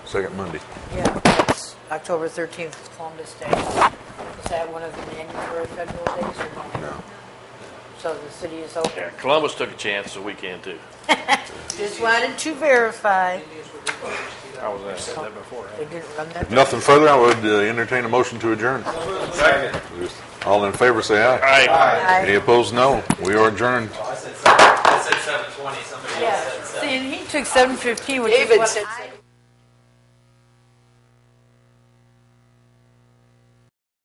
Second Monday. Yeah, that's October 13th is Columbus Day. Is that one of the January federal days or no? No. So the city is open. Yeah, Columbus took a chance, so we can too. Just wanted to verify. I was gonna say that before. They didn't run that. Nothing further, I would uh, entertain a motion to adjourn. All in favor, say All aye. right, I- Any opposed, no. We are adjourned. I said seven, I said seven twenty, somebody else said Yeah, seven. see, and he took 7:15, which is what they said.